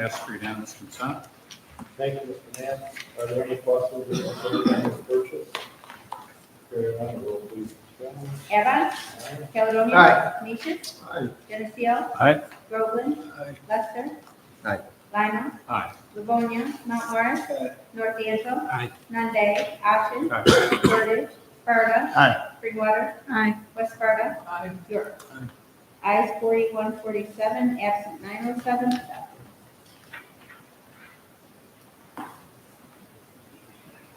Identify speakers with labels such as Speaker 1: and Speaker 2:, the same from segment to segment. Speaker 1: Passed for unanimous consent.
Speaker 2: Thank you, Mr. Mann. Are there any questions or concerns on this purchase? Hearing none, roll please. Michelle.
Speaker 3: Evan.
Speaker 2: Aye.
Speaker 3: Caledonia. Aye. Canisius. Geneseo.
Speaker 1: Aye.
Speaker 3: Groveland. Lester.
Speaker 4: Aye.
Speaker 3: Lima.
Speaker 1: Aye.
Speaker 3: Livonia. Mount Morris. North D'Anto.
Speaker 1: Aye.
Speaker 3: Nande. Ashen.
Speaker 1: Aye.
Speaker 3: Portage. Sparta.
Speaker 1: Aye.
Speaker 3: Springwater.
Speaker 5: Aye.
Speaker 3: West Sparta. York. Ayes forty-one forty-seven, absent nine oh seven, adopted.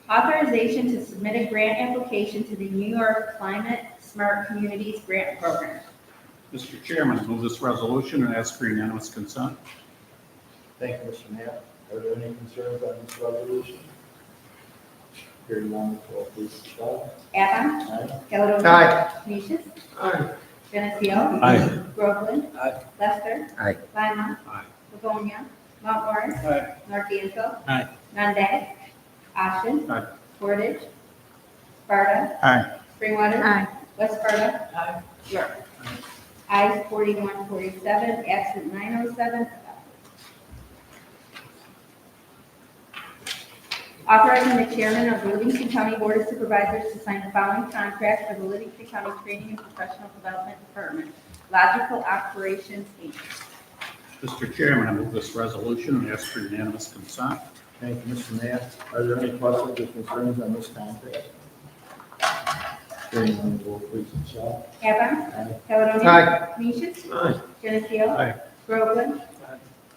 Speaker 3: Authorization to submit a grant application to the New York Climate Smart Communities Grant Program.
Speaker 1: Mr. Chairman, I move this resolution and ask for unanimous consent.
Speaker 2: Thank you, Mr. Mann. Are there any concerns on this resolution? Hearing none, roll please. Michelle.
Speaker 3: Avon,
Speaker 2: Aye.
Speaker 3: Caledonia. Aye. Canisius. Geneseo.
Speaker 1: Aye.
Speaker 3: Groveland. Lester.
Speaker 4: Aye.
Speaker 3: Lima.
Speaker 1: Aye.
Speaker 3: Livonia. Mount Morris.
Speaker 1: Aye.
Speaker 3: North D'Anto.
Speaker 1: Aye.
Speaker 3: Nande. Ashen.
Speaker 1: Aye.
Speaker 3: Portage. Sparta.
Speaker 1: Aye.
Speaker 3: Springwater.
Speaker 5: Aye.
Speaker 3: West Sparta. York. Ayes forty-one forty-seven, absent nine oh seven. Authorizing the chairman of Livingston County Board of Supervisors to sign the following contract for the Livingston County Training and Professional Development Department, Logical Operations Inc.
Speaker 1: Mr. Chairman, I move this resolution and ask for unanimous consent.
Speaker 2: Thank you, Mr. Mann. Are there any questions or concerns on this contract? Hearing none, roll please. Michelle.
Speaker 3: Evan.
Speaker 2: Aye.
Speaker 3: Caledonia. Aye. Canisius.
Speaker 4: Aye.
Speaker 3: Geneseo.
Speaker 1: Aye.
Speaker 3: Groveland.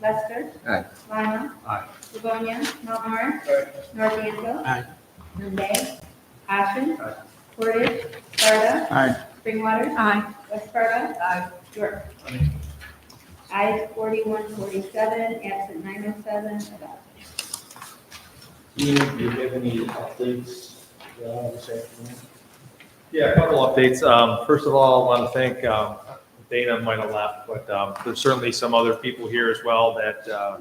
Speaker 3: Lester.
Speaker 4: Aye.
Speaker 3: Lima.
Speaker 1: Aye.
Speaker 3: Livonia. Mount Morris. North D'Anto.
Speaker 1: Aye.
Speaker 3: Nande. Ashen.
Speaker 1: Aye.
Speaker 3: Portage. Sparta.
Speaker 1: Aye.
Speaker 3: Springwater.
Speaker 5: Aye.
Speaker 3: West Sparta. Aye. York.
Speaker 1: Aye.
Speaker 3: Ayes forty-one forty-seven, absent nine oh seven, adopted.
Speaker 2: Ian, do you have any updates uh, this afternoon?
Speaker 6: Yeah, a couple updates. Um, First of all, I want to thank, um, Dana might have left, but um, there's certainly some other people here as well that uh,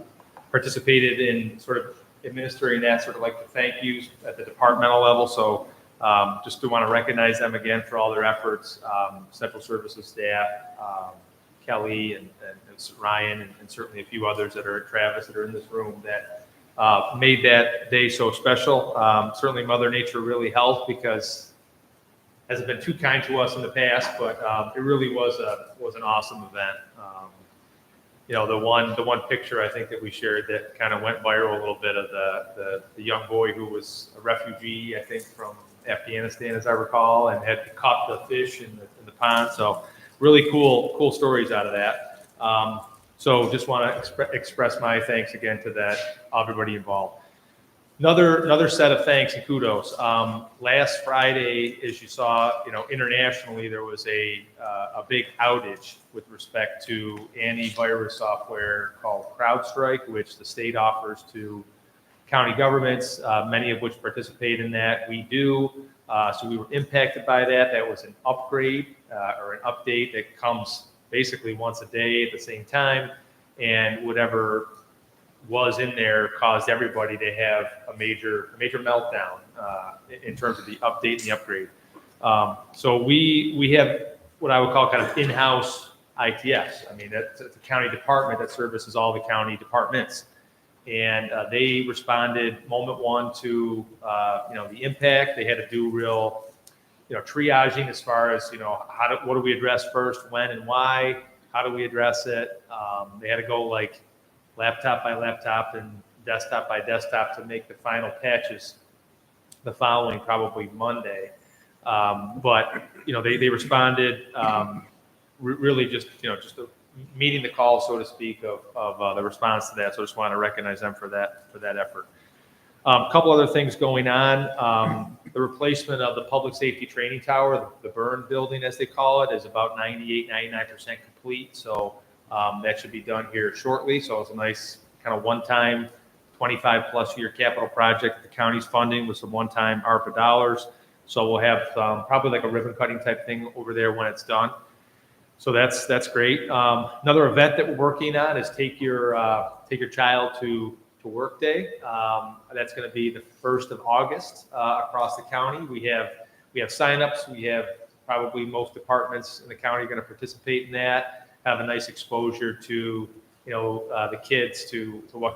Speaker 6: participated in sort of administering that, sort of like the thank yous at the departmental level. So um, just to want to recognize them again for all their efforts, um, central services staff, um, Kelly and and- and Ryan, and- and certainly a few others that are at Travis that are in this room that uh, made that day so special. Um, Certainly Mother Nature really helped because hasn't been too kind to us in the past, but um, it really was a was an awesome event. Um, you know, the one the one picture I think that we shared that kind of went viral a little bit of the, the the young boy who was a refugee, I think, from Afghanistan, as I recall, and had caught the fish in the, in the pond. So really cool cool stories out of that. Um, so just want to expre- express my thanks again to that everybody involved. Another, another set of thanks and kudos. Um, last Friday, as you saw, you know, internationally, there was a, uh, a big outage with respect to antivirus software called CrowdStrike, which the state offers to county governments, uh, many of which participate in that. We do. Uh, so we were impacted by that. That was an upgrade uh, or an update that comes basically once a day at the same time. And whatever was in there caused everybody to have a major, a major meltdown uh, in- in terms of the update and the upgrade. Um, so we we have what I would call kind of in-house ITS. I mean, that's, that's a county department that services all the county departments, and uh, they responded moment one to uh, you know the impact. They had to do real you know triaging as far as you know how do, what do we address first, when and why. How do we address it? Um, they had to go like laptop by laptop and desktop by desktop to make the final patches the following, probably Monday. Um, but, you know, they, they responded, um, re- really just, you know, just uh, meeting the call, so to speak, of, of, uh, the response to that. So just want to recognize them for that, for that effort. Um, couple other things going on. Um, the replacement of the public safety training tower, the burn building, as they call it, is about 98, 99% complete. So, um, That should be done here shortly, so it's a nice kind of one-time, 25-plus year capital project. The county's funding with some one-time ARPA dollars. So we'll have um, probably like a ribbon cutting type thing over there when it's done. So that's, that's great. Um, Another event that we're working on is Take Your, uh, Take Your Child to, to Work Day. Um, That's going to be the 1st of August uh, across the county. We have, we have signups, we have probably most departments in the county are going to participate in that have a nice exposure to you know, uh, the kids to, to what